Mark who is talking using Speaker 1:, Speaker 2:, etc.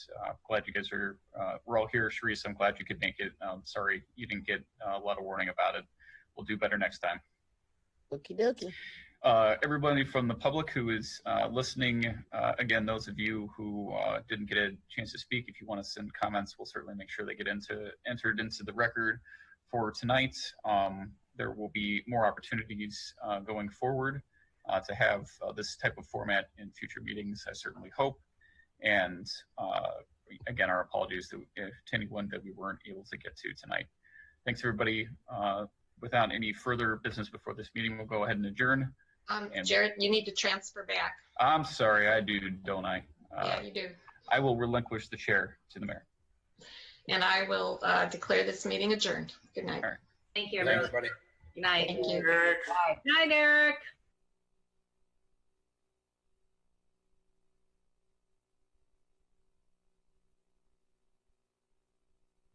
Speaker 1: Uh, glad you guys are, uh, we're all here. Sharice, I'm glad you could make it. Um, sorry you didn't get uh, a lot of warning about it. We'll do better next time.
Speaker 2: Okie dokie.
Speaker 1: Uh, everybody from the public who is uh, listening, uh, again, those of you who uh, didn't get a chance to speak, if you want to send comments, we'll certainly make sure they get into entered into the record for tonight. Um, there will be more opportunities uh, going forward uh, to have uh, this type of format in future meetings. I certainly hope. And uh, again, our apologies to, if, to anyone that we weren't able to get to tonight. Thanks, everybody. Uh, without any further business before this meeting, we'll go ahead and adjourn.
Speaker 3: Um,
Speaker 1: And-
Speaker 3: Jared, you need to transfer back.
Speaker 1: I'm sorry, I do, don't I? Uh,
Speaker 3: Yeah, you do.
Speaker 1: I will relinquish the chair to the mayor.
Speaker 3: And I will uh, declare this meeting adjourned. Good night.
Speaker 4: Thank you,
Speaker 1: Thanks.
Speaker 4: everyone.
Speaker 5: Everybody.
Speaker 4: Good night.
Speaker 3: Thank you.
Speaker 5: Eric.
Speaker 4: Good night, Eric.